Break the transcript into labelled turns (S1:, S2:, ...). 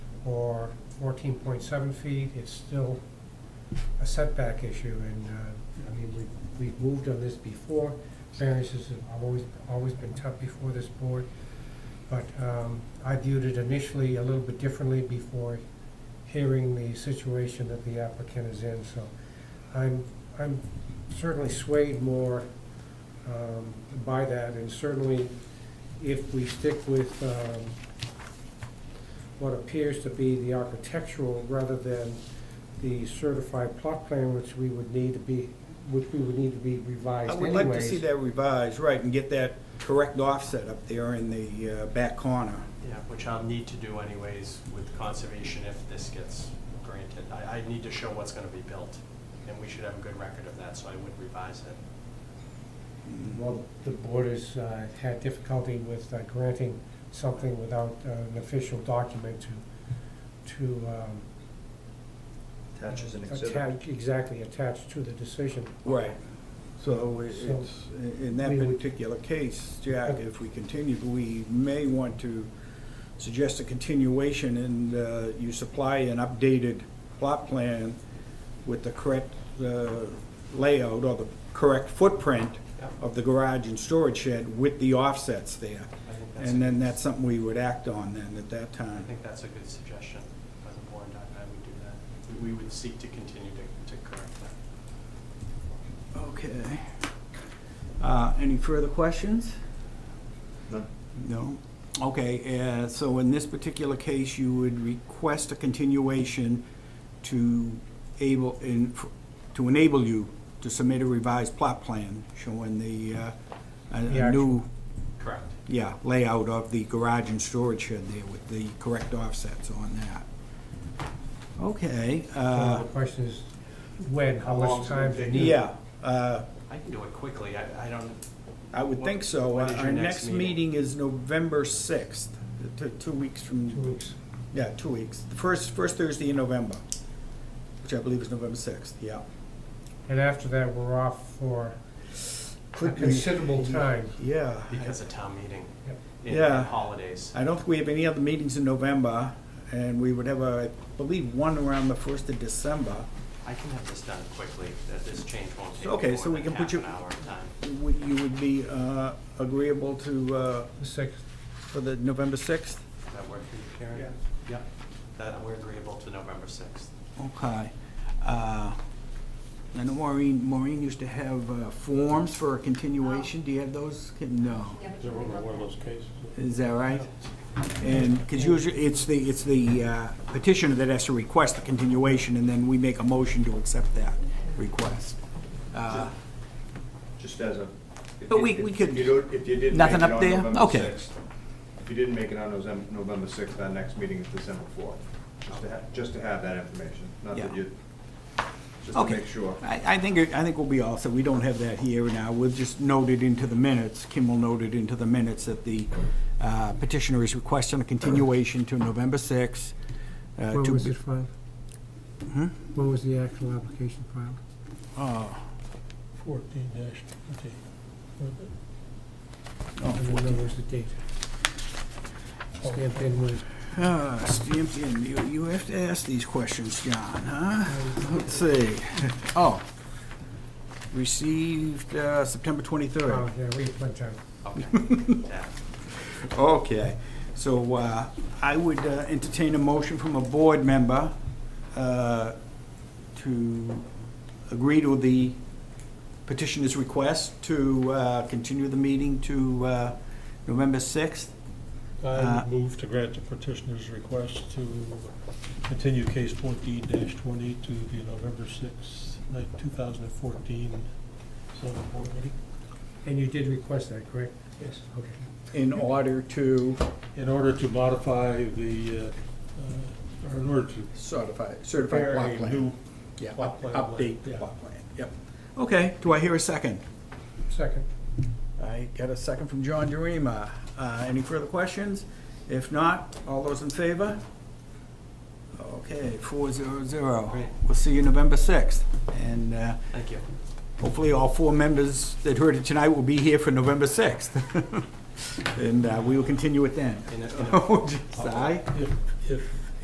S1: or fourteen point seven feet, it's still a setback issue, and, uh, I mean, we, we've moved on this before, variances have always, always been tough before this board, but, um, I viewed it initially a little bit differently before hearing the situation that the applicant is in, so I'm, I'm certainly swayed more, um, by that, and certainly if we stick with, um, what appears to be the architectural rather than the certified plot plan, which we would need to be, which we would need to be revised
S2: I
S1: anyways.
S2: would like to see that revised, right, and get that correct offset up there in the uh, back corner.
S3: Yeah, which I'll need to do anyways with conservation if this gets granted. I, I need to show what's gonna be built, and we should have a good record of that, so I would revise it.
S1: Well, the board has uh, had difficulty with uh, granting something without uh, an official document to, to. um,
S4: Attaches an exhibit.
S1: attach- Exactly, attached to the decision.
S2: Right. So it-
S1: So-
S2: it's, in that
S1: We would-
S2: particular case, Jack, if we continue, we may want to suggest a continuation and uh, you supply an updated plot plan with the correct uh, layout or the correct footprint
S3: Yeah.
S2: of the garage and storage shed with the offsets there.
S3: I think that's,
S2: And
S3: a-
S2: then that's something we would act on then at that
S3: I
S2: time.
S3: think that's a good suggestion by the board, I, I would do that. We- We would seek to continue to, to correct that.
S2: Okay. Uh, Any further questions?
S4: No.
S2: No? Okay, uh, so in this particular case, you would request a continuation to able, in- to enable you to submit a revised plot plan showing the, uh, a-
S1: The
S2: a
S1: actual-
S2: new,
S3: Correct.
S2: yeah, layout of the garage and storage shed there with the correct offsets on that. Okay.
S1: So
S2: uh,
S1: The question is, when, how much
S3: long's it
S1: time
S3: gonna
S1: do you
S3: take?
S1: need?
S2: Yeah, uh,
S3: I can do it quickly, I, I don't,
S2: I would think so.
S3: When is your
S2: Our
S3: next
S2: next meeting is November 6th, t- two weeks
S1: Two
S2: from,
S1: weeks.
S2: yeah, two weeks. The first, first Thursday in November, which I believe is November 6th, yeah.
S1: And after that, we're off for a
S2: Could be-
S1: considerable time.
S2: Yeah.
S3: because of town meeting
S1: Yep.
S3: and
S2: Yeah.
S3: and holidays.
S2: I don't think we have any other meetings in November, and we would have, a- I believe, one around the 1st of December.
S3: I can have this done quickly, that this change won't take
S2: So, okay,
S3: more
S2: so we
S3: than
S2: can put
S3: half
S2: you-
S3: an hour of time.
S2: Would, you would be uh, agreeable to, uh,
S1: The sixth,
S2: for the November 6th?
S3: Does that work for you, Karen?
S2: Yeah.
S3: Yep, that, we're agreeable to November sixth.
S2: Okay. Uh, I know Maureen, Maureen used to have uh, forms for a continuation. Do you have those? No.
S5: Yeah, but
S6: Is
S5: you
S6: it one
S5: already wrote
S6: of one of
S5: that.
S6: those cases?
S2: Is that right? And, because usually, it's the, it's the uh, petitioner that has to request the continuation, and then we make a motion to accept that request. Uh,
S4: Just as a. if
S2: But
S4: you-
S2: we- we
S4: if-
S2: could-
S4: If you don't, if you didn't make
S2: Nothing
S4: it
S2: up
S4: on
S2: there?
S4: November
S2: Okay.
S4: 6th, If you didn't make it on Novem- November sixth, our next meeting is December fourth. Just to have, just to have that information, not that
S2: Yeah.
S4: you, just to
S2: Okay.
S4: make sure.
S2: I, I think, it- I think we'll be all set. We don't have that here now. We'll just note it into the minutes. Kim will note it into the minutes that the uh, petitioner is requesting a continuation to November 6th. uh,
S1: when
S2: to
S1: was
S2: be-
S1: it filed?
S2: Hmm?
S1: When was the actual application filed?
S2: Oh,
S6: Fourteen dash twenty.
S2: oh,
S1: And then there was the date. Stamped in with,
S2: Ah, stamped in. You, you have to ask these questions, John, huh? Let's see. Oh. Received, uh, September
S1: oh,
S2: twenty-third.
S1: yeah, we went down.
S3: Okay. Yeah.
S2: Okay. So, uh, I would uh, entertain a motion from a board member, uh, to agree to the petitioner's request to, uh, continue the meeting to, uh, November sixth.
S6: I
S2: Uh,
S6: would move to grant the petitioner's request to continue case fourteen dash twenty to the November sixth, two thousand and fourteen, select board meeting.
S1: And you did request that, correct? Yes. Okay.
S2: In order to
S6: In order to modify the, uh, uh, or in order to
S2: certify, certify
S6: prepare
S2: block
S6: a
S2: plan.
S6: new
S2: Yeah,
S6: Plot
S2: up-
S6: plan,
S2: update the
S6: yeah.
S2: plot plan, yep. Okay, do I hear a second?
S1: Second.
S2: I got a second from John Jurema. Uh Any further questions? If not, all those in favor? Okay, four zero zero.
S3: Great.
S2: We'll see you November 6th. And uh,
S3: Thank you.
S2: hopefully all four members that heard it tonight will be here for November 6th. And uh, we will continue it then.
S3: In a- in a-
S2: Just aye?
S6: If, if